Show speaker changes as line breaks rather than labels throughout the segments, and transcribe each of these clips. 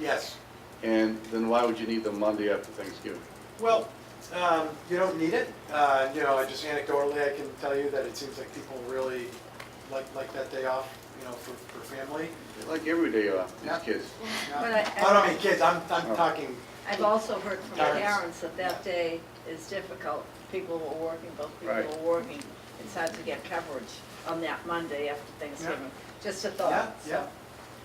Yes.
And then why would you need them Monday after Thanksgiving?
Well, um, you don't need it. Uh, You know, I just anecdotally, I can tell you that it seems like people really like, like that day off, you know, for, for family.
They Like every day off,
Yeah.
these kids.
Yeah. Oh,
But I-
I don't mean kids, I'm, I'm talking,
I've also heard from
Parents.
parents that that day is difficult. People were working, both people
Right.
were working. It's hard to get coverage on that Monday after Thanksgiving. Just a
yeah,
thought.
yeah,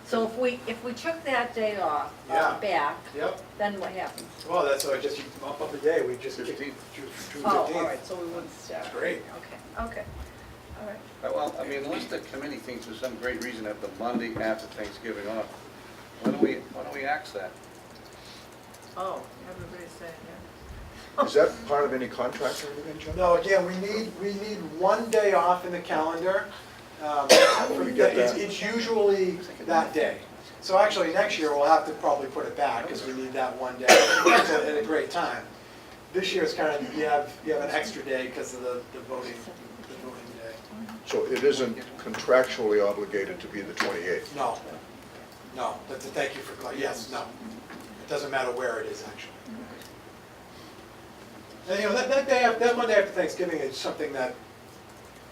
So if we, if we took that day off,
Yeah.
uh, back,
yep.
then what happens?
Well, that's, so I just, you bump up a day, we just. kicked June
15th.
June
Oh, all
15th.
right, so we wouldn't start.
Great.
Okay, okay, all right.
Uh, Well, I mean, unless the committee thinks for some great reason have the Monday after Thanksgiving off, why don't we, why don't we ax that?
Oh, everybody's saying,
Is that part of any contract or anything, John?
No, again, we need, we need one day off in the calendar. Um,
We get
It's
that.
it's usually that day. So actually, next year, we'll have to probably put it back, because we need that one day, It's a- at a great time. This year is kind of, you have, you have an extra day because of the the voting, the voting day.
So it isn't contractually obligated to be the 28th?
No, no, that's a thank you for, cla- yes, no. It doesn't matter where it is, actually. And, you know, that, that day, af- that Monday after Thanksgiving is something that,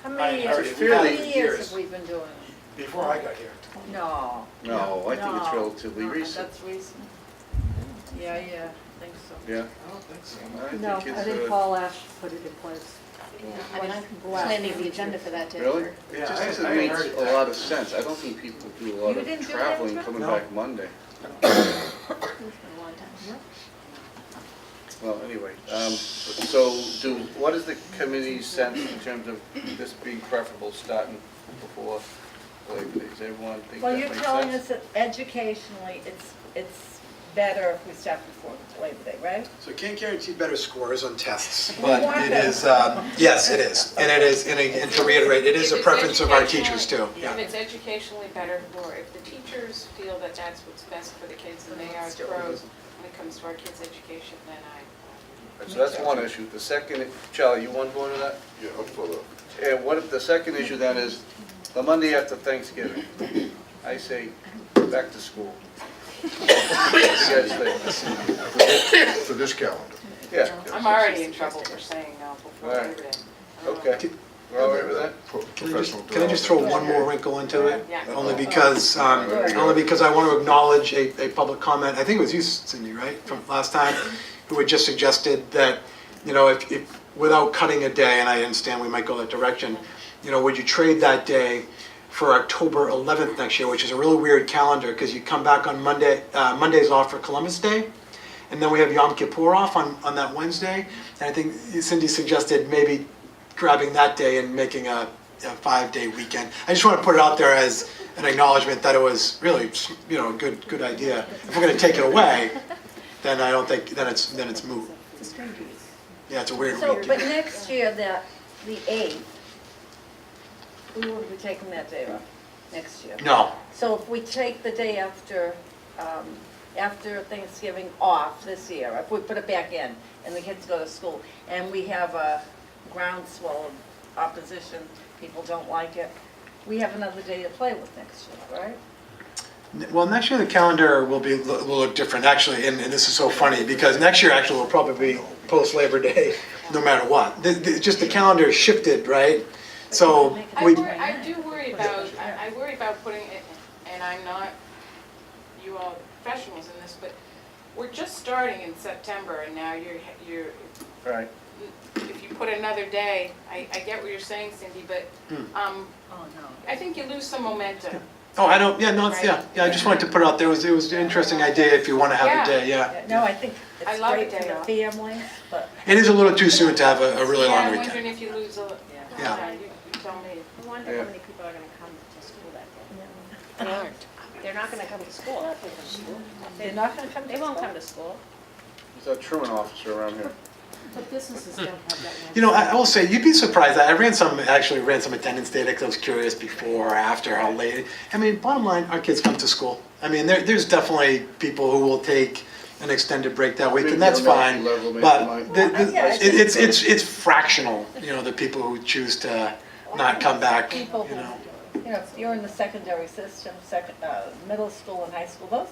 How
I
many
heard
years,
it.
how many
Fairly
years
years.
have we been doing it?
before I got here,
No.
No, Oh, I think it's
No,
relatively
no,
recent.
That's recent. Yeah, yeah, I think so.
Yeah?
I don't think so.
think
No, I
it's,
think
uh,
Paul Ash put it in place.
I mean, I'm planning the agenda for that day.
Really?
Yeah,
It just
I- I
doesn't
haven't
make
heard it
a
that.
lot of sense. I don't think people do a lot
You
of
didn't do it,
traveling
Ezra?
coming
No.
back Monday.
It's been a long time.
Well, anyway, um, so do, what is the committee's sense in terms of this being preferable starting before Labor Day? Does everyone think that
Well, you're
makes
telling us
sense?
that educationally, it's, it's better if we start before Labor Day, right?
So can't guarantee better scores on tests,
We
but
want
it
them.
is, um, yes, it is. And it is, and it- and to reiterate, it is a
If it's
preference of our
educationally-
teachers too.
If it's educationally better, or if the teachers feel that that's what's best for the kids and they are pros when it comes to our kids' education, then I,
So that's one issue. The second, Charlie, you want to go into that?
Yeah, I'm for that.
And what if the second issue then is the Monday after Thanksgiving? I say, back to school. What do you guys think?
For this calendar.
Yeah,
I'm already in trouble for saying no before
All right.
Labor Day. I don't know.
okay. We're all right with that?
Pro-
Can I
Professional
just- can I just throw one more wrinkle into it?
Yeah.
Only because, um,
There we go.
only because I want to acknowledge a, a public comment, I think it was you, Cindy, right, from last time, who had just suggested that, you know, if, if, without cutting a day, and I understand we might go that direction, you know, would you trade that day for October 11th next year, which is a really weird calendar, because you come back on Monday, uh, Monday's off for Columbus Day, and then we have Yom Kippur off on, on that Wednesday, and I think Cindy suggested maybe grabbing that day and making a, a five-day weekend. I just want to put it out there as an acknowledgement that it was really, you know, a good, good idea. If we're going to take it away, then I don't think, then it's, then it's moot. Yeah, it's a weird
So, but
weekend.
next year, that, the eighth, we will be taking that day off, next year.
No,
So if we take the day after, um, after Thanksgiving off this year, if we put it back in and the kids go to school, and we have a groundswell of opposition, people don't like it, we have another day to play with next year, right?
Well, next year the calendar will be, will look different, actually, and, and this is so funny, because next year actually will probably be post-Labor Day, no matter what. The, the, just the calendar shifted, right? So,
I
we,
worry, I do worry about, I I worry about putting, it- and I'm not, you all professionals in this, but we're just starting in September and now you're, you're,
Right.
if you put another day, I, I get what you're saying, Cindy, but,
Hmm.
um,
Oh, no.
I think you lose some momentum.
oh, I don't, yeah, no, it's, yeah, yeah, I just wanted to put it out there, it was, it was an interesting idea if you wanna have a day, yeah.
No, I think
I
it's
love
great
the day
for the
off.
families, but
It is a little too soon to have a, a really long
Yeah, I'm wondering
weekend.
if you lose a,
Yeah.
yeah, you you tell me.
I wonder
Yeah.
how many people are gonna come to school that day. They aren't. They're not gonna come to school.
they're not gonna come to
They won't
school.
come to school.
There's a truant officer around here.
But businesses don't have that one.
You know, I I will say, you'd be surprised, I I ran some, actually ran some attendance data, because I was curious before or after, how late. I mean, bottom line, our kids come to school. I mean, there, there's definitely people who will take an extended break that week,
Maybe
and that's
elementary
fine.
level, maybe
But
like-
the- the-
Yeah, I
it- it's, it's, it's fractional, you know, the people who choose to not come back, you
People who-
know.
You know, if you're in the secondary system, second, uh, middle school and high school, those